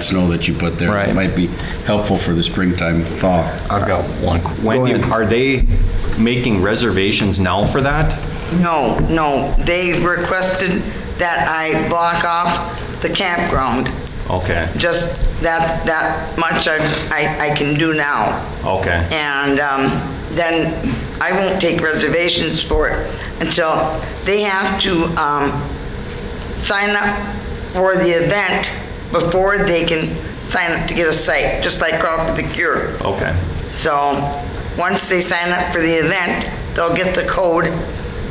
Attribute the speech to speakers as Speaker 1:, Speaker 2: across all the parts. Speaker 1: snow that you put there.
Speaker 2: Right.
Speaker 1: Might be helpful for the springtime thaw.
Speaker 3: I've got one. Wendy,
Speaker 2: ahead.
Speaker 3: are they making reservations now for that?
Speaker 4: No, no, they requested that I block off the campground.
Speaker 3: Okay,
Speaker 4: Just that, that much I, I I can do now.
Speaker 3: okay,
Speaker 4: And um, then I won't take reservations for it until they have to um, sign up for the event before they can sign up to get a site, just like Crawford the Cure.
Speaker 3: okay,
Speaker 4: So, once they sign up for the event, they'll get the code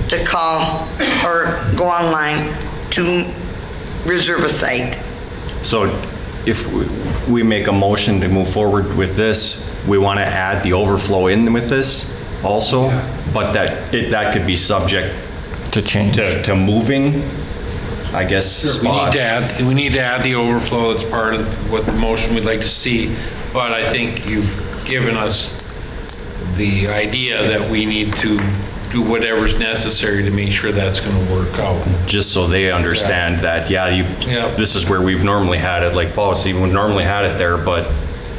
Speaker 4: to call or go online to reserve a site.
Speaker 3: so if we- we make a motion to move forward with this, we want to add the overflow in with this also, but that, it, that could be subject
Speaker 2: to change.
Speaker 3: to, to moving, I guess,
Speaker 5: We need
Speaker 3: spots.
Speaker 5: to add, we need to add the overflow as part of what the motion we'd like to see, but I think you've given us the idea that we need to do whatever's necessary to make sure that's going to work out.
Speaker 3: just so they understand that, yeah, you,
Speaker 5: Yeah.
Speaker 3: this is where we've normally had it, like Paul said, we normally had it there, but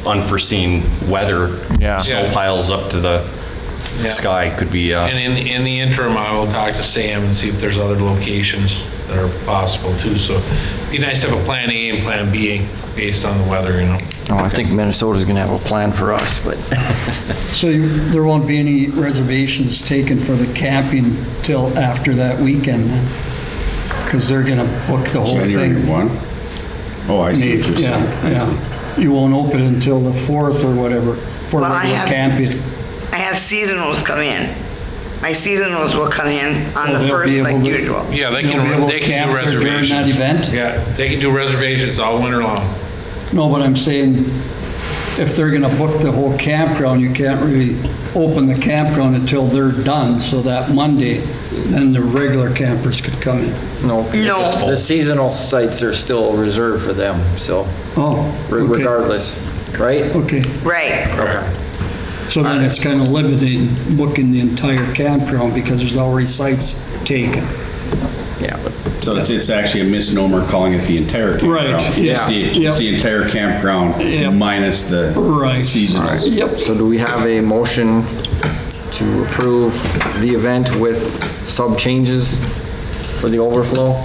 Speaker 3: unforeseen weather,
Speaker 2: Yeah.
Speaker 3: snow
Speaker 5: Yeah.
Speaker 3: piles up to the
Speaker 5: Yeah.
Speaker 3: sky could be, uh,
Speaker 5: And in, in the interim, I will talk to Sam and see if there's other locations that are possible too, so it'd be nice to have a plan A and plan B based on the weather, you know?
Speaker 2: Oh, I think Minnesota's going to have a plan for us, but
Speaker 6: So you- there won't be any reservations taken for the camping till after that weekend? Because they're going to book the whole
Speaker 1: January
Speaker 6: thing.
Speaker 1: 1? Oh, I see what you're saying.
Speaker 6: Yeah,
Speaker 1: I see.
Speaker 6: yeah. You won't open until the 4th or whatever for
Speaker 4: Well, I
Speaker 6: regular
Speaker 4: have-
Speaker 6: camping.
Speaker 4: I have seasonals come in. My seasonals will come in on the
Speaker 6: Well, Oh, they'll
Speaker 4: first,
Speaker 6: be
Speaker 4: like
Speaker 6: able to-
Speaker 4: usual.
Speaker 5: Yeah, they
Speaker 6: They'll be
Speaker 5: can,
Speaker 6: able to
Speaker 5: they can do
Speaker 6: camp during that
Speaker 5: reservations.
Speaker 6: event?
Speaker 5: Yeah, they can do reservations all winter long.
Speaker 6: No, but I'm saying, if they're going to book the whole campground, you can't really open the campground until they're done, so that Monday, then the regular campers could come in.
Speaker 7: No.
Speaker 4: No. it's full.
Speaker 7: The seasonal sites are still reserved for them, so
Speaker 6: Oh,
Speaker 7: re-
Speaker 6: okay.
Speaker 7: regardless, right?
Speaker 6: Okay,
Speaker 4: Right.
Speaker 7: Okay.
Speaker 6: so then it's kind of limiting booking the entire campground because there's already sites taken.
Speaker 7: Yeah, but
Speaker 1: So it's, it's actually a misnomer calling it the entire campground.
Speaker 6: Right, yeah,
Speaker 1: It's the,
Speaker 6: yeah.
Speaker 1: it's the entire
Speaker 6: Yeah.
Speaker 1: campground minus the
Speaker 6: Right.
Speaker 1: seasonals.
Speaker 6: Yep.
Speaker 2: so do we have a motion to approve the event with sub changes for the overflow?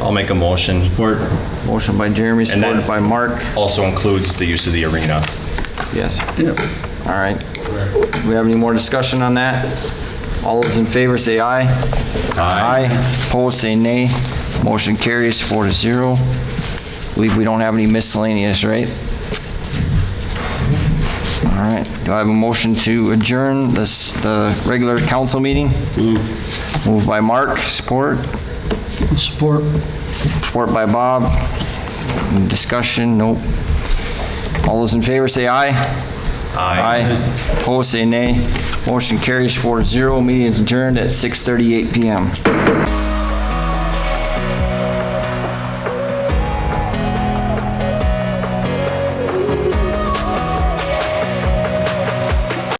Speaker 3: I'll make a motion.
Speaker 2: Motion by Jeremy,
Speaker 3: And that-
Speaker 2: supported by Mark.
Speaker 3: Also includes the use of the arena.
Speaker 2: Yes.
Speaker 6: Yep.
Speaker 2: All right. We have any more discussion on that? All those in favor say aye. Aye. Opposed, say nay. Motion carries four to zero. Believe we don't have any miscellaneous, right? All right. Do I have a motion to adjourn this, the regular council meeting? Moved by Mark, support,
Speaker 6: Support.
Speaker 2: support by Bob. Any Discussion, nope. All those in favor say aye. Aye. Opposed, say nay. Motion carries 4-0. Meeting is adjourned at 6:38 PM.